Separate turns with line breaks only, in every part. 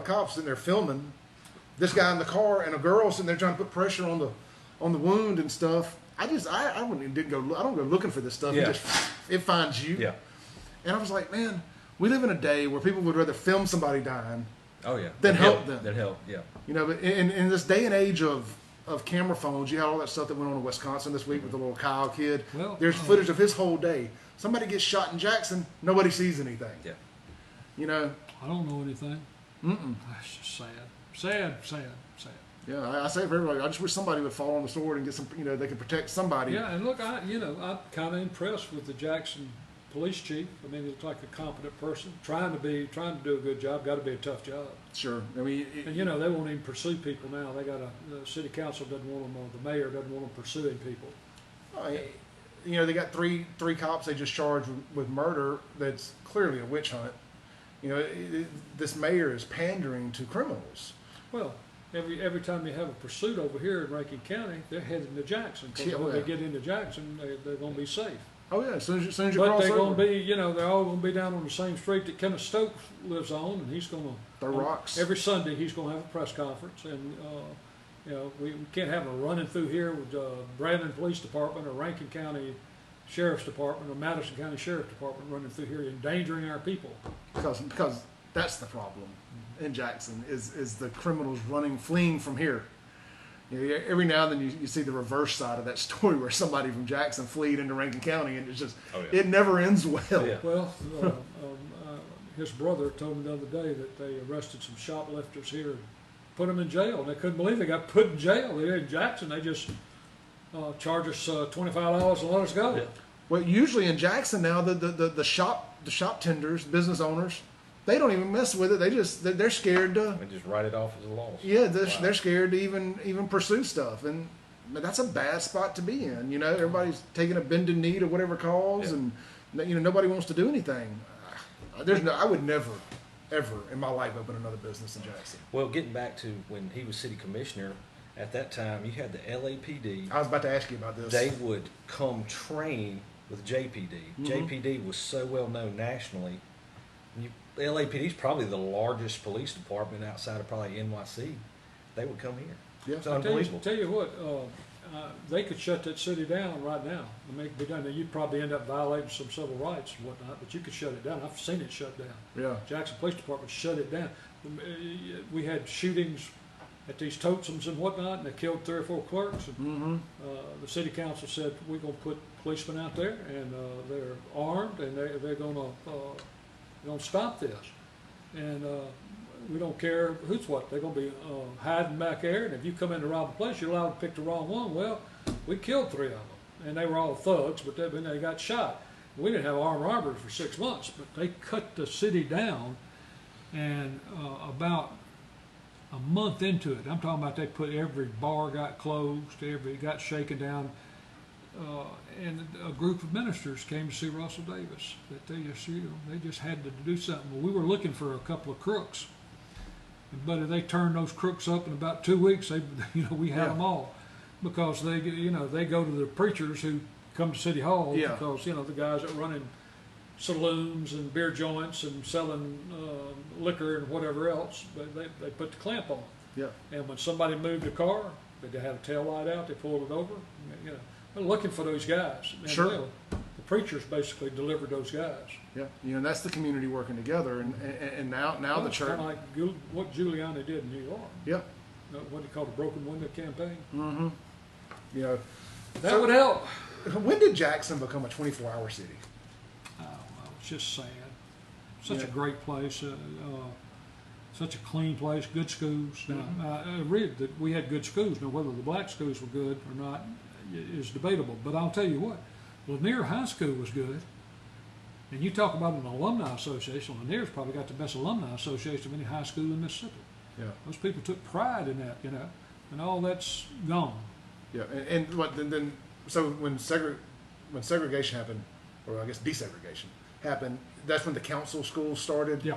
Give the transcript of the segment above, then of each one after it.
cops in there filming this guy in the car and a girl sitting there trying to put pressure on the on the wound and stuff. I just I, I wouldn't didn't go I don't go looking for this stuff.
Yeah.
It just it finds you.
Yeah.
And I was like, man, we live in a day where people would rather film somebody dying.
Oh yeah.
Then
That
help
helped.
them.
That help. Yeah.
You know, but in, in this day and age of of camera phones, you had all that stuff that went on in Wisconsin this week with the little Kyle kid.
Well,
There's
um,
footage of his whole day. Somebody gets shot in Jackson, nobody sees anything.
Yeah.
You know,
I don't know anything. Mm-mm. That's just sad. Sad, sad, sad.
yeah, I, I say for everybody, I just wish somebody would fall on the sword and get some, you know, they could protect somebody.
Yeah, and look, I, you know, I'm kind of impressed with the Jackson police chief. I mean, he looks like a competent person, trying to be, trying to do a good job, got to be a tough job.
Sure. I mean, it-
And, you know, they won't even pursue people now. They got a, the city council doesn't want them, or the mayor doesn't want them pursuing people.
I- you know, they got three three cops they just charged with, with murder. That's clearly a witch hunt. You know, it, it- this mayor is pandering to criminals.
Well, every, every time you have a pursuit over here in Rankin County, they're heading to Jackson,
Yeah,
because when they
well.
get into Jackson, they, they're gonna be safe.
Oh yeah, as soon as, as, soon as you
But
cross
they're
over,
gonna be, you know, they're all gonna be down on the same street that Kenneth Stokes lives on, and he's gonna.
they're rocks.
Every Sunday, he's gonna have a press conference, and, uh, you know, we, we can't have a running through here with, uh, Brandon Police Department or Rankin County Sheriff's Department or Madison County Sheriff's Department running through here endangering our people.
because because that's the problem in Jackson is is the criminals running fleeing from here. You know, every now and then you, you see the reverse side of that story where somebody from Jackson fled into Rankin County and it's just
Oh, yeah.
it never ends well.
Yeah.
Well, uh, um, uh, his brother told me the other day that they arrested some shoplifters here, and put them in jail. They couldn't believe they got put in jail. They're in Jackson. They just uh, charge us uh, twenty-five dollars and let us go.
Yeah.
Well, usually in Jackson now, the, the, the, the shop the shop tenders, business owners, they don't even mess with it. They just they're, they're scared to
And just write it off as a loss.
yeah they're,
Wow.
they're scared to even even pursue stuff, and that's a bad spot to be in. You know, everybody's taking a bend in knee to whatever cause,
Yeah.
and you know nobody wants to do anything. Uh, There's no, I would never, ever in my life open another business in Jackson.
Well, getting back to when he was city commissioner, at that time you had the LAPD.
I was about to ask you about this.
They would come train with JPD. JPD was so well known nationally. You, LAPD is probably the largest police department outside of probably NYC. They would come here.
Yeah.
It's
I tell you,
unbelievable.
tell you what, uh, uh, they could shut that city down right now. I mean, it could be done. Now, You'd probably end up violating some civil rights and whatnot, but you could shut it down. I've seen it shut down.
yeah,
Jackson Police Department shut it down. Um, uh, We had shootings at these totems and whatnot, and they killed three or four clerks. And,
mm-hmm.
uh, the city council said we're going to put policemen out there, and uh, they're armed, and they, they're going to uh, going to stop this. And uh, we don't care who's what. They're going to be uh, hiding back there, and if you come in to rob a place, you're allowed to pick the wrong one. Well, we killed three of them, and they were all thugs, but they, then they got shot. We didn't have armed robbers for six months, but they cut the city down, and uh, about a month into it, I'm talking about they put every bar got closed, every got shaken down, uh, and a group of ministers came to see Russell Davis. That they just you know, they just had to do something. Well, we were looking for a couple of crooks, but they turned those crooks up in about two weeks. They you know we had
Yeah.
them all because they you know they go to the preachers who come to City Hall
Yeah.
because you know the guys that running saloons and beer joints and selling uh, liquor and whatever else, but they, they put the clamp on.
yeah.
And when somebody moved a car, they had a tail light out, they pulled it over. You know, they're looking for those guys. And
Sure.
they- the preachers basically delivered those guys.
Yeah, you know that's the community working together, and and, and now now the church.
Kind of like Giul- what Giuliani did in New York,
Yeah,
uh, what he called the broken window campaign.
mm-hmm. You know,
That
So-
would help.
when did Jackson become a 24-hour city?
I don't know. It's just sad. Such a
Yeah.
great place. Uh, uh, such a clean place. Good schools. Now, I, I read that we had good schools. Now, whether the black schools were good or not i- is debatable. But I'll tell you what, Lanier High School was good. And you talk about an alumni association. Lanier's probably got the best alumni association of any high school in Mississippi.
Yeah.
Those people took pride in that, you know, and all that's gone.
Yeah, and, and what then, then? So when segre- when segregation happened, or I guess desegregation happened, that's when the council schools started.
Yeah,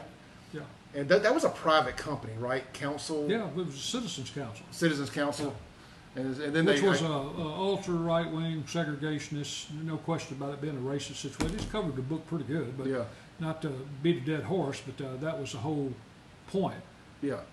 yeah,
and that, that was a private company, right? Council,
yeah. It was a citizens council.
Citizens Council, and, and then
Which
they
was
I-
a, a ultra right wing segregationist, no question about it being a racist situation. It's covered the book pretty good, but
yeah,
not to beat a dead horse, but uh, that was the whole point.
Yeah.